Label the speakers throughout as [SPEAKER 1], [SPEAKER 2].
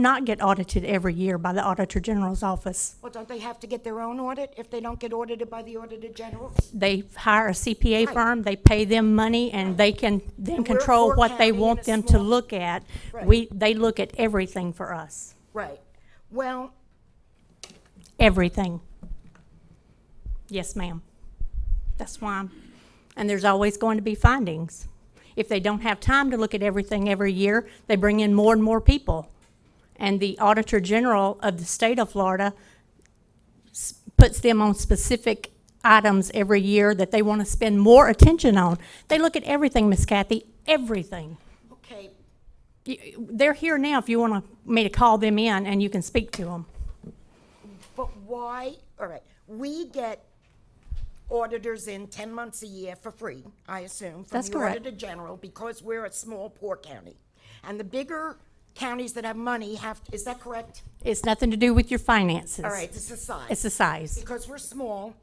[SPEAKER 1] not get audited every year by the Auditor General's office.
[SPEAKER 2] Well, don't they have to get their own audit if they don't get audited by the Auditor General?
[SPEAKER 1] They hire a CPA
[SPEAKER 2] Right.
[SPEAKER 1] firm, they pay them money, and they can then
[SPEAKER 2] And we're a
[SPEAKER 1] control
[SPEAKER 2] poor
[SPEAKER 1] what
[SPEAKER 2] county
[SPEAKER 1] they
[SPEAKER 2] and a
[SPEAKER 1] want them to
[SPEAKER 2] small-
[SPEAKER 1] look at.
[SPEAKER 2] Right.
[SPEAKER 1] We, they look at everything for us,
[SPEAKER 2] Right. Well,
[SPEAKER 1] everything. Yes, ma'am. That's why, I'm- and there's always going to be findings. If they don't have time to look at everything every year, they bring in more and more people. And the Auditor General of the state of Florida s- puts them on specific items every year that they want to spend more attention on. They look at everything, Miss Kathy, everything.
[SPEAKER 2] okay,
[SPEAKER 1] Y- They're here now if you want me to call them in and you can speak to them.
[SPEAKER 2] but why, all right, we get auditors in 10 months a year for free, I assume, from
[SPEAKER 1] That's
[SPEAKER 2] the
[SPEAKER 1] correct.
[SPEAKER 2] Auditor General, because we're a small, poor county. And the bigger counties that have money have, is that correct?
[SPEAKER 1] It's nothing to do with your finances.
[SPEAKER 2] All right, this is size.
[SPEAKER 1] It's the size.
[SPEAKER 2] Because we're small,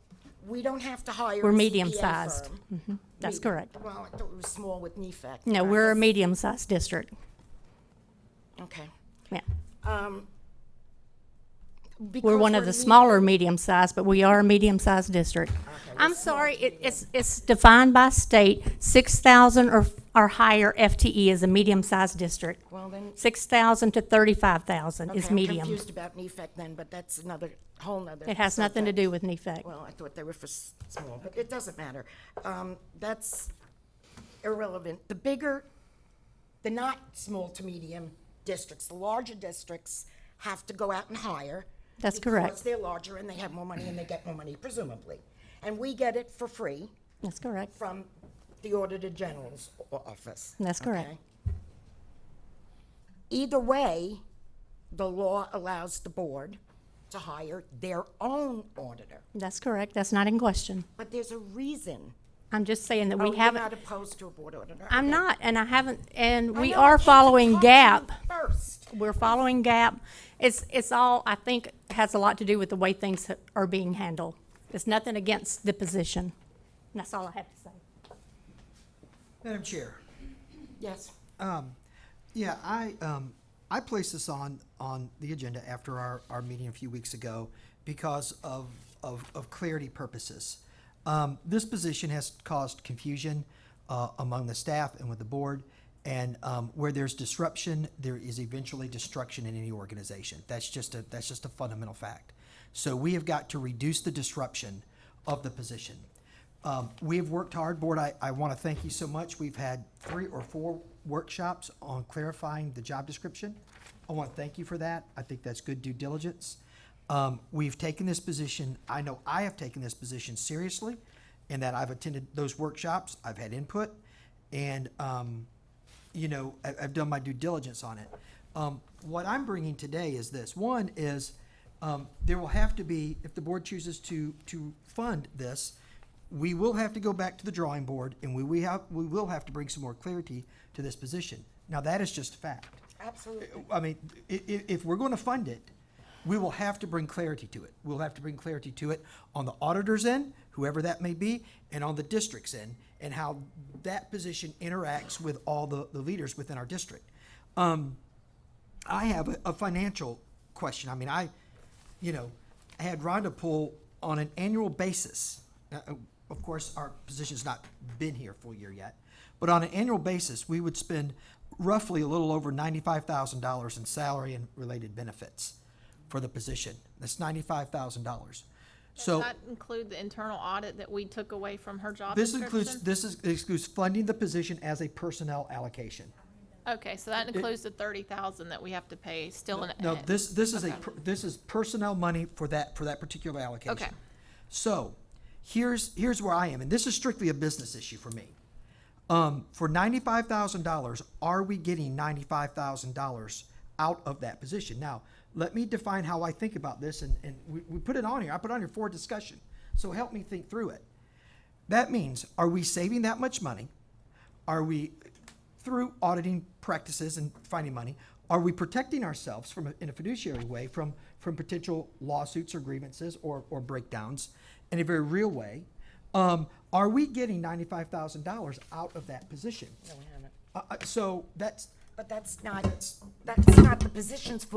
[SPEAKER 2] we don't have to hire
[SPEAKER 1] We're
[SPEAKER 2] a CPA
[SPEAKER 1] medium-sized. Mm-hmm.
[SPEAKER 2] firm.
[SPEAKER 1] That's
[SPEAKER 2] Me-
[SPEAKER 1] correct.
[SPEAKER 2] Well, I thought we were small with E NEFAC.
[SPEAKER 1] No,
[SPEAKER 2] Right,
[SPEAKER 1] we're a
[SPEAKER 2] that's-
[SPEAKER 1] medium-sized district.
[SPEAKER 2] Okay.
[SPEAKER 1] Yeah. We're
[SPEAKER 2] Because
[SPEAKER 1] one of the
[SPEAKER 2] me-
[SPEAKER 1] smaller medium-sized, but we are a medium-sized district. I'm sorry, it, it's, it's defined by state, six thousand or, or higher FTE is a medium-sized district.
[SPEAKER 2] Well, then,
[SPEAKER 1] Six thousand to thirty-five thousand
[SPEAKER 2] okay,
[SPEAKER 1] is
[SPEAKER 2] I'm
[SPEAKER 1] medium.
[SPEAKER 2] confused about NEFAC then, but that's another, whole nother.
[SPEAKER 1] It has nothing to do with E NEFAC.
[SPEAKER 2] Well, I thought they were for s- small, but it doesn't matter. Um, That's irrelevant. The bigger, the not small to medium districts, the larger districts have to go out and hire.
[SPEAKER 1] That's correct.
[SPEAKER 2] Because they're larger and they have more money and they get more money presumably. And we get it for free
[SPEAKER 1] That's correct.
[SPEAKER 2] from the Auditor General's o- office.
[SPEAKER 1] That's correct.
[SPEAKER 2] okay? Either way, the law allows the board to hire their own auditor.
[SPEAKER 1] That's correct. That's not in question.
[SPEAKER 2] But there's a reason.
[SPEAKER 1] I'm just saying that
[SPEAKER 2] Oh,
[SPEAKER 1] we
[SPEAKER 2] you're
[SPEAKER 1] haven't,
[SPEAKER 2] not opposed to a board auditor.
[SPEAKER 1] I'm
[SPEAKER 2] Okay.
[SPEAKER 1] not, and I haven't, and
[SPEAKER 2] I
[SPEAKER 1] we
[SPEAKER 2] know, I
[SPEAKER 1] are
[SPEAKER 2] came to
[SPEAKER 1] following
[SPEAKER 2] talk to you
[SPEAKER 1] GAP.
[SPEAKER 2] First.
[SPEAKER 1] We're following GAP. It's, it's all, I think, has a lot to do with the way things are being handled. It's nothing against the position. And that's all I have to say.
[SPEAKER 3] Madam Chair,
[SPEAKER 2] Yes.
[SPEAKER 3] yeah, I, um, I placed this on, on the agenda after our, our meeting a few weeks ago because of, of, of clarity purposes. Um, this position has caused confusion, uh, among the staff and with the board. And, um, where there's disruption, there is eventually destruction in any organization. That's just a, that's just a fundamental fact. So we have got to reduce the disruption of the position. Um, we have worked hard, Board. I, I want to thank you so much. We've had three or four workshops on clarifying the job description. I want to thank you for that. I think that's good due diligence. Um, we've taken this position, I know I have taken this position seriously, in that I've attended those workshops, I've had input, and, um, you know, I, I've done my due diligence on it. Um, what I'm bringing today is this. One is um, there will have to be, if the board chooses to to fund this, we will have to go back to the drawing board, and we we have we will have to bring some more clarity to this position. Now that is just fact.
[SPEAKER 2] Absolutely.
[SPEAKER 3] I mean, i- i- if we're going to fund it, we will have to bring clarity to it. We'll have to bring clarity to it on the auditor's end, whoever that may be, and on the district's end, and how that position interacts with all the, the leaders within our district. I have a, a financial question. I mean, I, you know, I had Rhonda pull on an annual basis. Uh, uh, of course, our position's not been here full year yet, but on an annual basis, we would spend roughly a little over ninety-five thousand dollars in salary and related benefits for the position. That's ninety-five thousand dollars. So.
[SPEAKER 4] Does that include the internal audit that we took away from her job
[SPEAKER 3] This includes,
[SPEAKER 4] description?
[SPEAKER 3] this is, excludes funding the position as a personnel allocation.
[SPEAKER 4] Okay, so that includes the thirty thousand that we have to pay still in.
[SPEAKER 3] No,
[SPEAKER 4] in-
[SPEAKER 3] this, this is a, per- this is personnel money for that, for that particular allocation.
[SPEAKER 4] Okay.
[SPEAKER 3] So, here's, here's where I am, and this is strictly a business issue for me. Um, for ninety-five thousand dollars, are we getting ninety-five thousand dollars out of that position? Now, let me define how I think about this, and, and we, we put it on here, I put it on here for discussion, so help me think through it. That means, are we saving that much money? Are we, through auditing practices and finding money, are we protecting ourselves from, a- in a fiduciary way, from, from potential lawsuits or grievances or, or breakdowns in a very real way? Um, are we getting ninety-five thousand dollars out of that position? No, we haven't. Uh, uh, so that's,
[SPEAKER 2] But that's not, that's not the position's fault.